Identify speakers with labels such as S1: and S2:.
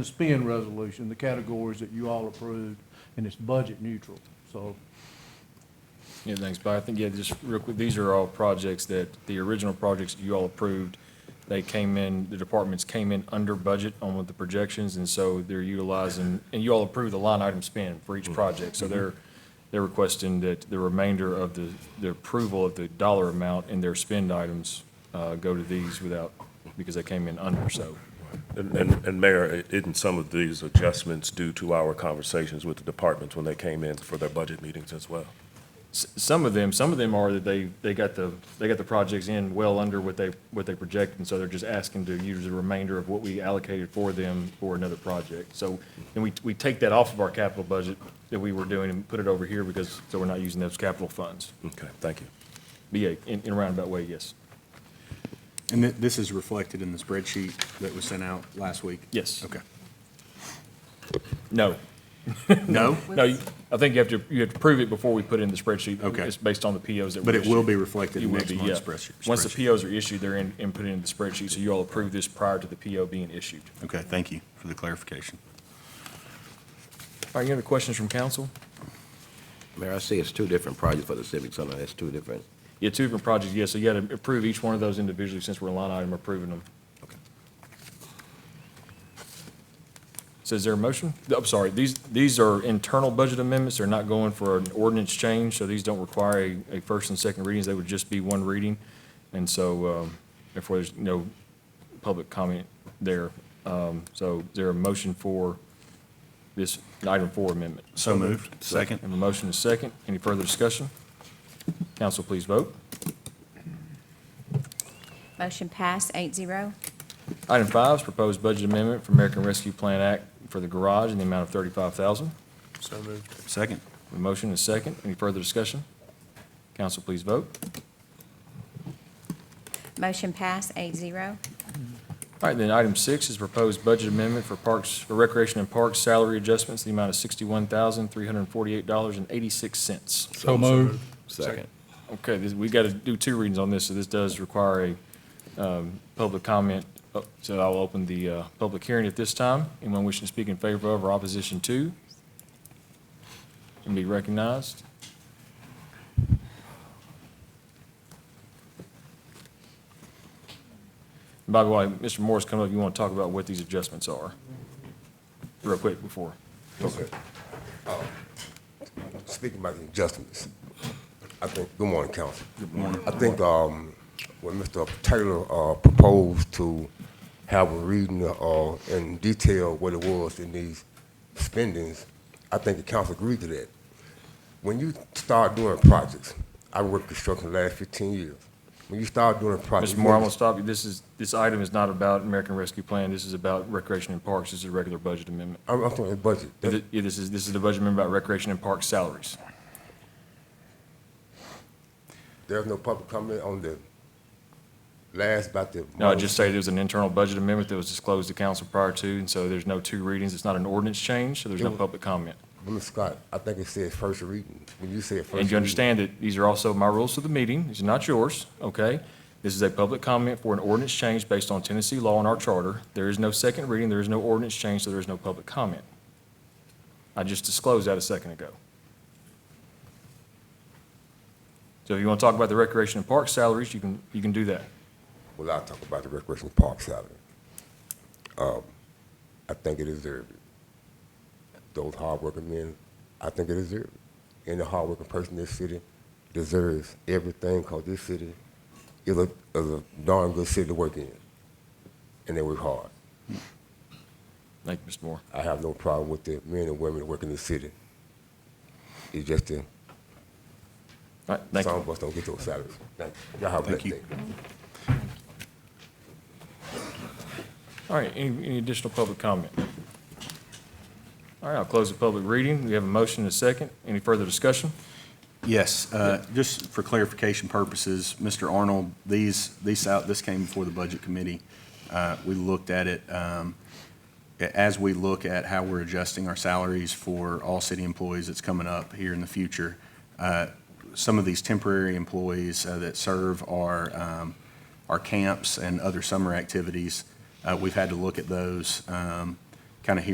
S1: the spend resolution, the categories that you all approved, and it's budget neutral. So
S2: Yeah, thanks, but I think, yeah, just real quick, these are all projects that, the original projects you all approved, they came in, the departments came in under budget on with the projections, and so they're utilizing, and you all approved the line item spend for each project, so they're, they're requesting that the remainder of the, the approval of the dollar amount and their spend items, uh, go to these without, because they came in under, so.
S3: And, and- and Mayor, i- isn't some of these adjustments due to our conversations with the departments when they came in for their budget meetings as well?
S2: S- Some of them, some of them are that they, they got the, they got the projects in well under what they, what they projected, and so they're just asking to use the remainder of what we allocated for them for another project. So, and we, we take that off of our capital budget that we were doing and put it over here because, so we're not using those capital funds.
S3: Okay, thank you.
S2: But yeah, in, in a roundabout way, yes.
S4: And thi- this is reflected in the spreadsheet that was sent out last week?
S2: Yes.
S4: Okay.
S2: No,
S4: No,
S2: no, you- I think you have to, you have to prove it before we put it in the spreadsheet.
S4: Okay.
S2: It's based on the POs that were
S4: but it will
S2: issued.
S4: be reflected
S2: You
S4: in
S2: will
S4: next
S2: be,
S4: month's
S2: yeah.
S4: spreadsheet.
S2: Once the
S4: spreadsheet.
S2: POs are issued, they're in, and put into the spreadsheet, so you all approve this prior to the PO being issued.
S4: Okay, thank you for the clarification.
S2: Are you any questions from council?
S5: Mayor, I see it's two different projects for the civic center, that's two different.
S2: Yeah, two different projects, yes, so you gotta approve each one of those individually since we're a line item approving them. So is there a motion? I'm sorry, these, these are internal budget amendments, they're not going for an ordinance change, so these don't require a, a first and second readings, they would just be one reading. And so, um, therefore, there's no public comment there. Um, so is there a motion for this item four amendment?
S4: So moved.
S2: I
S4: Second.
S2: Have a motion and a second. Any further discussion? Council, please vote.
S6: Motion passed, eight zero.
S2: Item five is proposed budget amendment for American Rescue Plan Act for the garage in the amount of thirty-five thousand.
S4: Second.
S2: A motion and a second. Any further discussion? Council, please vote.
S6: Motion passed, eight zero.
S2: All right, then item six is proposed budget amendment for Parks, for Recreation and Parks salary adjustments in the amount of sixty-one thousand, three hundred and forty-eight dollars and eighty-six cents.
S5: So moved. Second.
S2: Okay, this, we got to do two readings on this, so this does require a, um, public comment. Uh, So I'll open the, uh, public hearing at this time. Anyone wishing to speak in favor of or opposition to? Can be recognized. By the way, Mr. Morris, come up, if you want to talk about what these adjustments are, real quick before.
S7: Okay. Uh, Speaking about the adjustments, I think, good morning, council. Good morning. I think um, when Mr. Taylor uh, proposed to have a reading uh, in detail what it was in these spendings, I think the council agreed to that. When you start doing projects, I worked construction the last 15 years. When you start doing projects.
S2: Mr. Moore, I'm gonna stop you. This is, this item is not about American Rescue Plan. This is about Recreation and Parks. This is a regular budget amendment.
S7: I'm I'm talking budget. That's-
S2: Th- Yeah, this is, this is the budget amendment about Recreation and Parks salaries.
S7: There's no public comment on the last about the.
S2: No, I just stated it was an internal budget amendment that was disclosed to council prior to, and so there's no two readings. It's not an ordinance change, so there's no public comment.
S7: Mr. Scott, I think it says first reading. When you say first reading.
S2: And you understand that these are also my rules of the meeting. These are not yours, okay? This is a public comment for an ordinance change based on Tennessee law and our charter. There is no second reading, there is no ordinance change, so there is no public comment. I just disclosed that a second ago. So if you want to talk about the recreation and park salaries, you can, you can do that.
S7: Well, I'll talk about the recreation park salary. Um, I think it deserved it. Those hardworking men, I think it deserved it. And the hardworking person in this city deserves everything because this city is a, is a darn good city to work in. And they work hard.
S2: Thank you, Mr. Moore.
S7: I have no problem with the men and women that work in this city. It's just that
S2: All right, thank you.
S7: some of us don't get those salaries. Thank you. Y'all have a
S4: Thank
S7: blessed
S4: you.
S7: day.
S2: All right, any, any additional public comment? All right, I'll close the public reading. We have a motion and a second. Any further discussion?
S4: Yes, uh, just for clarification purposes, Mr. Arnold, these, these out, this came before the Budget Committee. Uh, We looked at it, um, a- as we look at how we're adjusting our salaries for all city employees that's coming up here in the future, uh, some of these temporary employees uh, that serve our, um, our camps and other summer activities, uh, we've had to look at those. um, kind of hear